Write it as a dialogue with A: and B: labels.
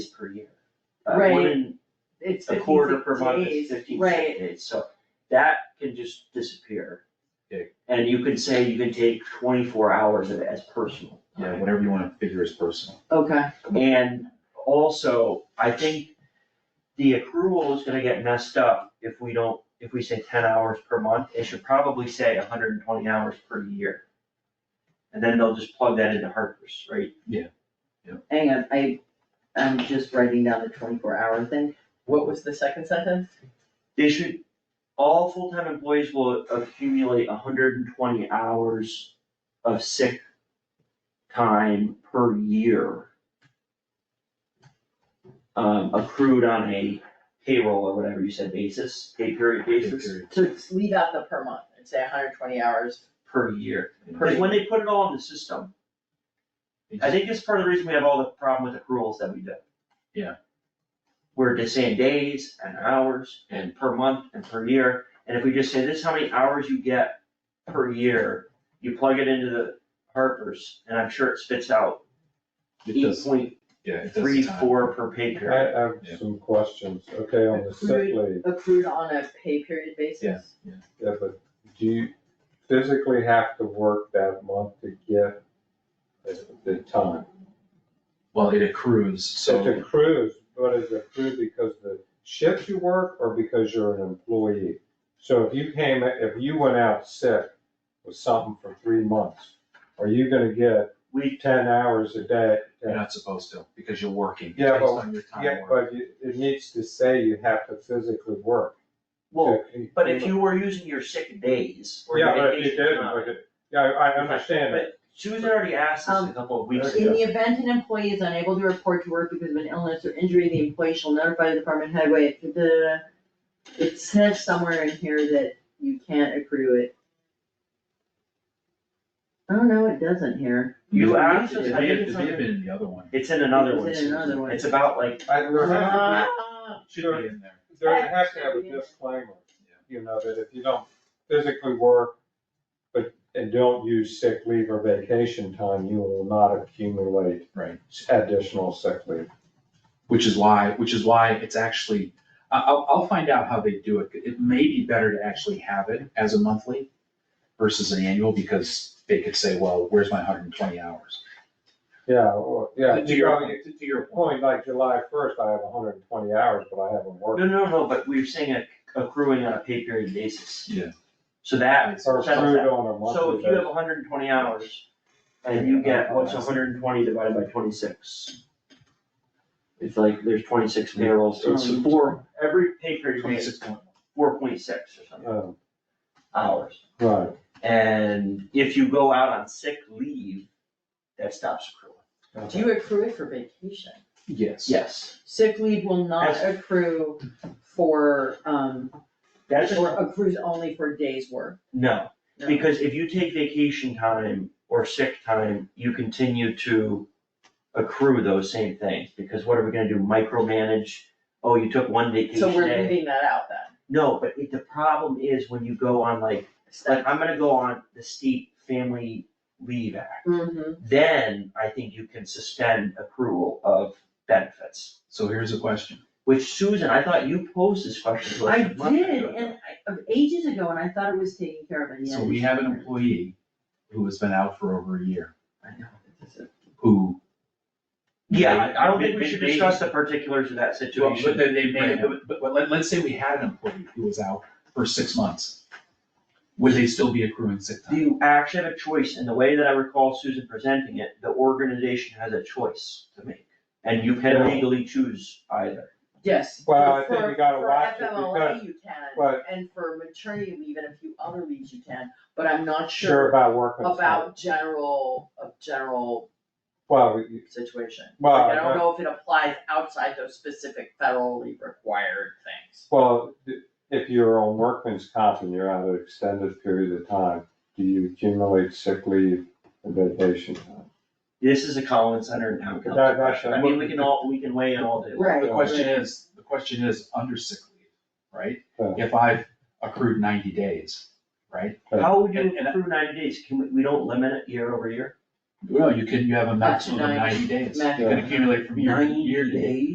A: days per year.
B: Right.
A: Uh, wouldn't
B: it's
A: a
B: fifteen,
A: quarter per month is
B: days,
A: fifteen,
B: right.
A: six days, so that can just disappear.
C: Okay.
A: And you could say you can take twenty-four hours of it as personal.
C: Yeah, whatever you wanna figure is personal.
B: Okay,
A: And also, I think the accrual is gonna get messed up if we don't, if we say ten hours per month, it should probably say hundred and twenty hours per year. And then they'll just plug that into Harper's, right?
B: hang on, I, I'm just writing down the twenty-four hour thing. What was the second sentence?
A: They should, all full-time employees will accumulate hundred and twenty hours of sick time per year. Um, accrued on a payroll or whatever you said basis, pay period basis
C: Period.
D: So it's leave out the per month and say hundred twenty hours.
A: per year.
C: Yeah.
A: Cause when they put it all in the system, I think it's part of the reason we have all the problem with accruals that we do.
C: Yeah.
A: We're just saying days and hours
C: And,
A: per month and per year, and if we just say this is how many hours you get per year, you plug it into the Harper's, and I'm sure it spits out
C: it
A: eight
C: does,
A: point
C: yeah, it does. the
A: three
C: time.
A: four per pay period.
E: I have
C: Yeah.
E: some questions, okay, on the sick leave,
D: Accrued on a pay period basis?
C: Yeah.
E: yeah, but do you physically have to work that month to get the- the time?
C: Well, it accrues,
E: It
C: so
E: accrues, but is it accrued because the shift you work or because you're an employee? So if you came, if you went out sick with something for three months, are you gonna get
A: We,
E: ten hours a day?
C: you're not supposed to, because you're working, it's
E: Yeah,
C: based
E: but-
C: on your time
E: Yeah,
C: worked.
E: but you- it needs to say you have to physically work.
A: well,
E: to-
A: but if you were using your sick days or your
E: Yeah, but it
A: vacation
E: did,
A: time-
E: but it, yeah, I I understand it.
A: But Susan already asked us a couple of weeks
B: In
A: ago,
B: the event an employee is unable to report to work because of an illness or injury, the employee shall notify the department head, wait, da, da, da, da. It says somewhere in here that you can't accrue it. Oh, no, it doesn't here.
A: you asked us,
C: It
A: I
C: may
A: think it's
C: have, it may have
A: on,
C: been in the other one,
A: it's in another one,
B: It's in another
A: Susan.
B: one.
A: it's about like,
E: I, there has to
D: Ah,
C: It should be in there.
E: be, there has to have a disclaimer, you know, that if you don't physically work, but, and don't use sick leave or vacation time, you will not accumulate
C: Right.
E: additional sick leave.
C: Which is why, which is why it's actually, I, I'll, I'll find out how they do it, it may be better to actually have it as a monthly versus an annual, because they could say, well, where's my hundred and twenty hours?
E: Yeah, well, yeah,
C: To
E: you
C: your,
E: know,
C: to to your point,
E: only like July first, I have hundred and twenty hours, but I haven't
A: no,
E: worked.
A: no, no, but we were saying a- accruing on a pay period basis.
C: Yeah.
A: So that
E: Or
A: settles that.
E: accrued on a
A: So
E: monthly
A: if you have
E: basis.
A: hundred and twenty hours, and you get, what's hundred and twenty divided by twenty-six? It's like, there's twenty-six payrolls, it's
C: Um,
A: four, every pay period is
C: twenty-six point,
A: four point six or something,
E: Um,
A: hours.
E: Right,
A: And if you go out on sick leave, that stops accruing.
D: Do you accrue it for vacation?
C: yes.
A: Yes,
D: Sick leave will not
A: That's-
D: accrue for, um,
A: that's,
D: or accrues only for days work.
A: no,
D: No.
A: because if you take vacation time or sick time, you continue to accrue those same things, because what are we gonna do, micromanage? Oh, you took one vacation
D: So we're
A: day.
D: leaving that out then.
A: No, but it, the problem is when you go on like, like I'm gonna go on the state family leave act.
B: Mm.
D: Mm-hmm.
A: Then I think you can suspend accrual of benefits,
C: So here's a question.
A: which Susan, I thought you posed this question to us.
B: I
A: a month ago.
B: did, and I, ages ago, and I thought it was taken care of, and yet.
C: So we have an
B: it's-
C: employee who has been out for over a year,
A: I know.
C: who.
A: Yeah, I I don't think we
C: They-
A: should
C: they-
A: discuss the particulars of that
C: Well, but
A: situation.
C: they, they may,
A: right now.
C: but, but let, let's say we had an employee who was out for six months. Would they still be accruing sick
A: Do
C: time?
A: you actually have a choice? And the way that I recall Susan presenting it, the organization has a choice to make. And you can
E: Yeah.
A: legally choose either.
D: Yes.
E: Well, I
D: For-
E: think you gotta
D: for
E: watch it
D: FMLA
E: because-
D: you can,
E: but-
D: and for maternity leave and a few other leaves you can, but I'm not
E: sure
D: sure
E: about working.
D: about general, of general
E: Well, you-
D: situation.
E: Well,
D: Like, I
E: that-
D: don't know if it applies outside those specific federally required things.
E: Well, if you're on workman's comp and you're out an extended period of time, do you accumulate sick leave and vacation time?
A: This is a Collins Center and Town Council.
E: That- that's-
A: question. I mean, we can all, we can weigh in all day long.
B: Right.
C: The question is, the question is under sick leave, right?
E: Yeah.
C: If I've accrued ninety days, right?
A: How would you
C: And- and I-
A: accrue ninety days? Can we, we don't limit it year over year?
C: Well, you can, you have a
D: Up to
C: maximum of
D: 90,
C: ninety days. You
D: max-
C: can accumulate from year to year to year.